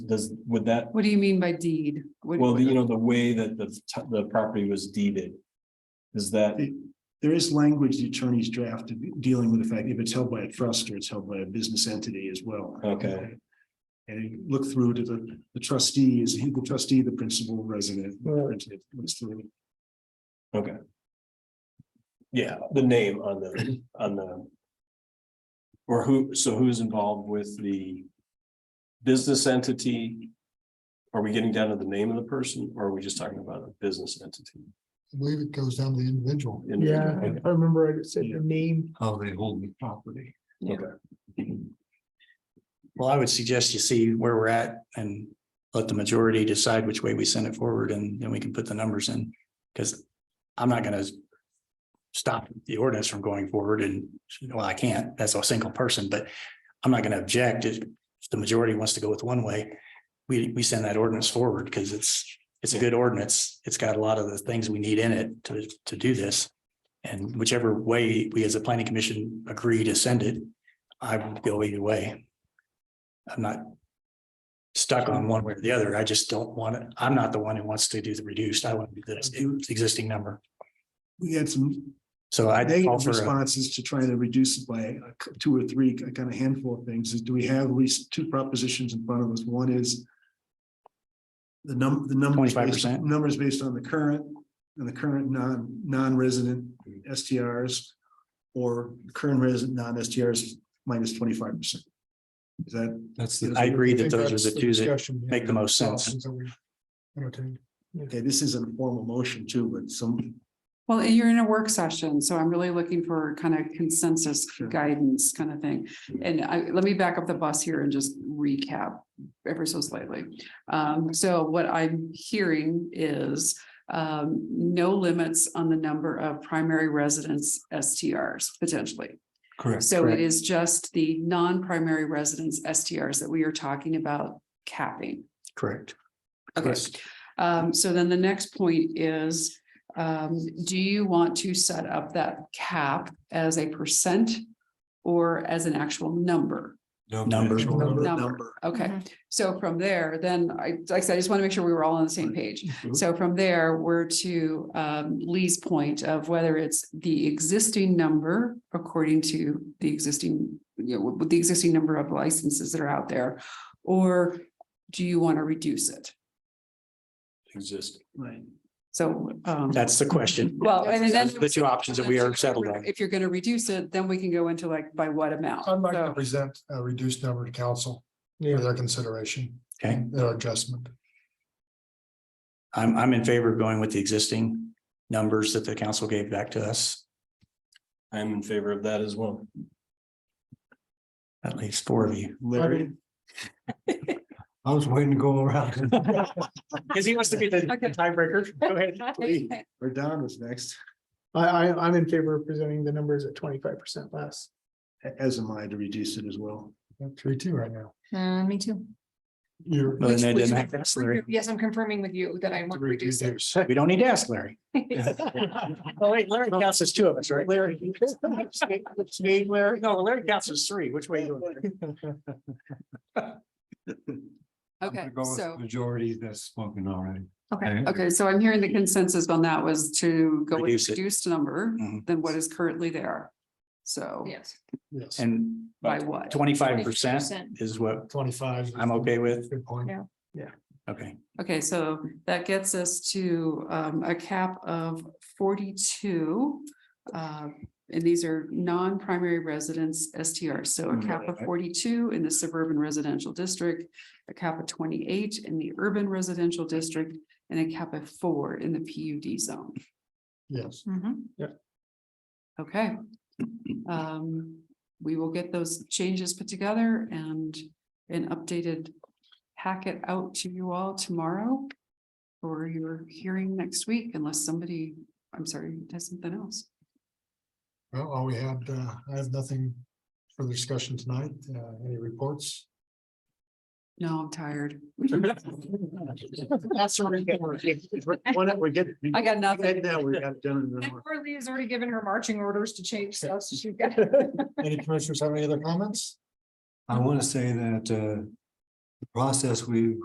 does, would that, What do you mean by deed? What- well, what- you know, the way that the, t- the property was deeded. Is that, There is language the attorneys drafted dealing with the fact if it's held by a trust or it's held by a business entity as well. Okay. And you look through to the, the trustee, is he the trustee, the principal resident? yeah, the name on the, on the. Or who, so who's involved with the business entity? Are we getting down to the name of the person or are we just talking about a business entity? I believe it goes down to the individual. Individual, okay. I remember it said your name. how they hold the property. Well, I would suggest you see where we're at and let the majority decide which way we send it forward and then we can put the numbers in. Because I'm not gonna stop the ordinance from going forward and, well, I can't, that's a single person, but I'm not gonna object if if the majority wants to go with one way. We, we send that ordinance forward because it's, it's a good ordinance. It's got a lot of the things we need in it to, to do this. And whichever way we as a planning commission agree to send it, I would go either way. I'm not stuck on one way or the other. I just don't want it. I'm not the one who wants to do the reduced. I want to do the existing number. We had some So I call negative for a- responses to trying to reduce it by a cou- two or three, a kind of handful of things, is do we have at least two propositions in front of us? One is the num, the number. 25%? Numbers based on the current, and the current non, non-resident Mm-hmm. STRs or current resident non-STRs minus twenty-five percent. Is that That's the, I agree that think those that's are the two that discussion, yeah, make the most sense. options that we entertained. Okay, this is an formal motion too, but some, Well, and you're in a work session, so I'm really looking for kind of consensus Sure. guidance kind of thing. And I, let me back up the bus here and just recap ever so slightly. Um, so what I'm hearing is um, no limits on the number of primary residence STRs potentially. correct, So it correct. is just the non-primary residence STRs that we are talking about capping. correct. Okay. Yes. Um, so then the next point is, um, do you want to set up that cap as a percent? Or as an actual number? no Number. actual number, Number. number. Okay, so from there, then I, like I said, I just want to make sure we were all on the same page. Mhm. So from there, we're to um Lee's point of whether it's the existing number according to the existing, you know, with the existing number of licenses that are out there. Or do you want to reduce it? Exist. Right. So um. That's the question. Well, and then. That's The two options that we are settled on. If you're gonna reduce it, then we can go into like by what amount. I'd like to So, present a reduced number to council for their consideration, Okay, their adjustment. I'm, I'm in favor of going with the existing numbers that the council gave back to us, I'm in favor of that as well. at least four of you. Larry, I was waiting to go around. Because he wants to be the tiebreaker. Go ahead. or Don was next, I, I, I'm in favor of presenting the numbers at twenty-five percent less. a- as am I to reduce it as well. Three, two right now. Uh, me too. You're. Well, then it Which- doesn't which- have to ask Larry. Yes, I'm confirming with you that I want to reduce it. We don't need to ask Larry. Oh, wait, Larry counts as two of us, right? Larry. Steve, Larry, no, Larry counts as three. Which way? you I'm gonna Okay, go with so, Majority that's spoken already. Okay, okay, so I'm hearing the consensus on that was to go with Reduce it. reduced number Mhm. than what is currently there. So yes. Yes, And by what? twenty-five percent 25%. is what twenty-five. I'm okay with. Good point. Yeah. Okay, Okay, so that gets us to um a cap of forty-two. Uh, and these are non-primary residents STR, so a cap of forty-two in the suburban residential district. A cap of twenty-eight in the urban residential district and a cap of four in the PUD zone. Yes. Mm-hmm. Okay. Um, we will get those changes put together and an updated packet out to you all tomorrow. Or your hearing next week unless somebody, I'm sorry, has something else. Well, all we had, uh, I have nothing for the discussion tonight. Uh, any reports? No, I'm tired. That's what we get. Why not, we get. we- I got nothing. Right now, we got done. in an hour. Carly has already given her marching orders to change stuff. so she's got- Any commissioners have any other comments? I want to say that uh, the process we